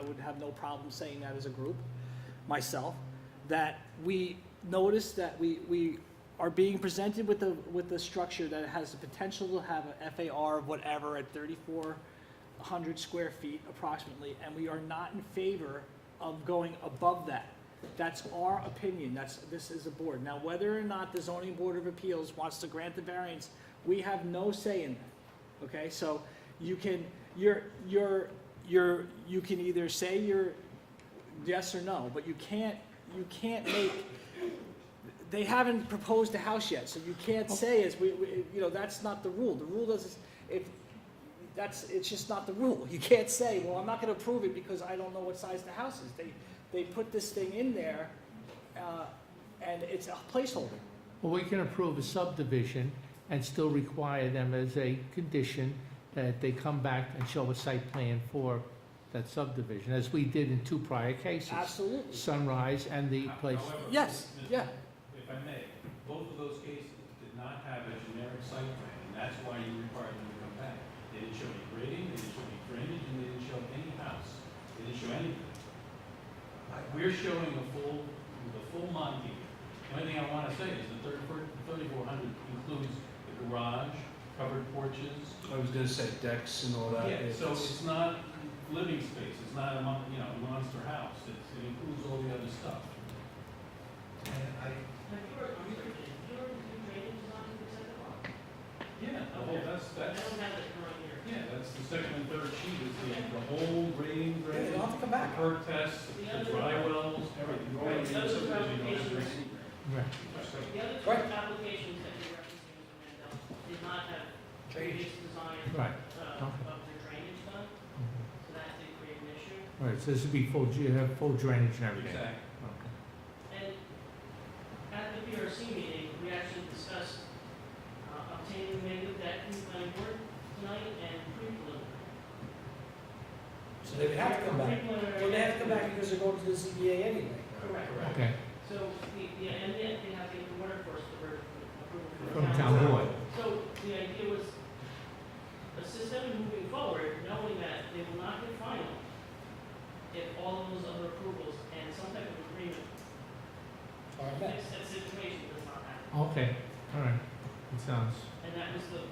would have no problem saying that as a group, myself, that we notice that we, we are being presented with a, with a structure that has the potential to have a FAR of whatever at thirty-four hundred square feet approximately, and we are not in favor of going above that. That's our opinion, that's, this is the board. Now, whether or not the zoning board of appeals wants to grant the variance, we have no say in that, okay? So you can, you're, you're, you're, you can either say you're yes or no, but you can't, you can't make, they haven't proposed a house yet, so you can't say is, we, we, you know, that's not the rule. The rule doesn't, if, that's, it's just not the rule. You can't say, well, I'm not gonna approve it because I don't know what size the house is. They, they put this thing in there, uh, and it's a placeholder. Well, we can approve a subdivision and still require them as a condition that they come back and show a site plan for that subdivision, as we did in two prior cases, Absolutely. Sunrise and the place. However, Yes, Mr. yeah. If I may, both of those cases did not have a generic site plan, and that's why you required them to come back. They didn't show any grading, they didn't show any drainage, and they didn't show any house. They didn't show anything. We're showing a full, the full Monty. The only thing I want to say is the thirty-four hundred includes the garage, covered porches. I was gonna say decks and all that. Yeah, so it's- it's not living space, it's not a, mon- you know, monster house, it's, it includes all the other stuff. Yeah, the whole, that's, that's. Yeah, that's the second and third sheet is the, the whole rain, drain, They'll have to come the back. perk test, the dry wells, everything. All of Right, those are these subdivisions you don't have to bring. Right. The other two Right. applications that you're referencing, Mr. Mandel, did not have previous design Right, uh, of their drainage done, so that did create an issue. All right, so this would be full, you have full drainage and everything. Exactly. Okay. And at the PRC meeting, we actually discussed uh, obtaining negative debt from the planning board tonight and pre-preliminary. So they would have to come back. Pre-preliminary- Well, they have to come back because they're going to the ZBA anyway. Correct. Okay, So, the- yeah, and then they have to get the water course for approval from from the town board. So the idea was a system moving forward, knowing that they will not get final if all of those other approvals and some type of agreement All right, to Matt. fix that situation does not happen. Okay, all right, it sounds, And that was the,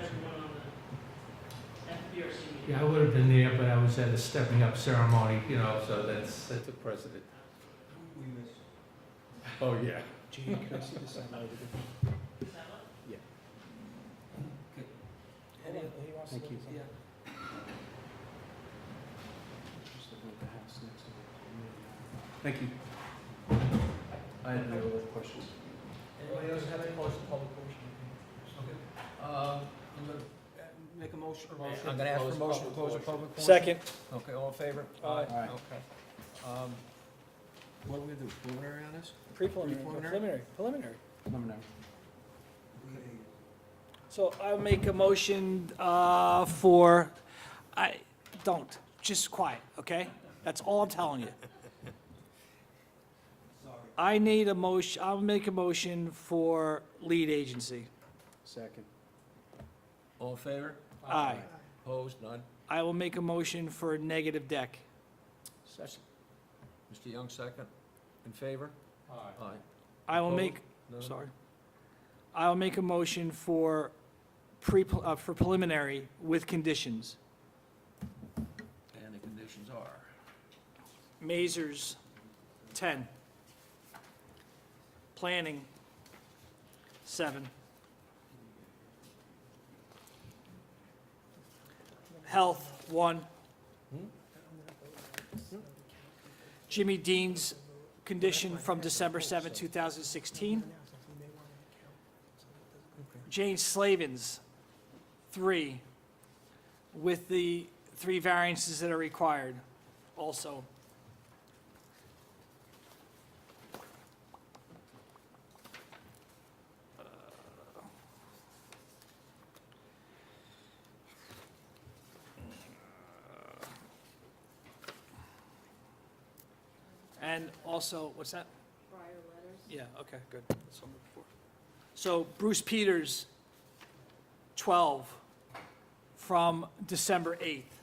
everyone on the FBRC meeting. yeah, I would have been there, but I was at a stepping up ceremony, you know, so that's, that took precedent. We missed. Oh, yeah. Gene, can I see this? I know. Is that what? Hold on, he wants to Thank you. look at something. Just about the house next to it. Thank you. I have no other questions. Anybody else have any questions, public portion? Uh, I'm gonna make a motion. I'm gonna ask for a motion to close the public portion. Second. Okay, all in favor? Aye. Aye. Okay. Um, What are we gonna do, preliminary on this? Pre-preliminary, Preliminary? preliminary, preliminary. Preliminary. So I'll make a motion uh, for, I, don't, just quiet, okay? That's all I'm telling you. I need a motion, I'll make a motion for lead agency. Second. All in favor? Aye. Opposed? None? I will make a motion for negative deck. Second. Mr. Young, second. In favor? Aye. I will make, None? sorry. I will make a motion for pre, uh, for preliminary with conditions. And the conditions are? Mazers, 10. Planning, 7. Health, 1. Jimmy Dean's condition from December 7, 2016. Jane Slavin's, 3, with the three variances that are required also. And also, what's that? Prior letters. Yeah, okay, good. That's what I'm looking for. So Bruce Peters, 12, from December 8th.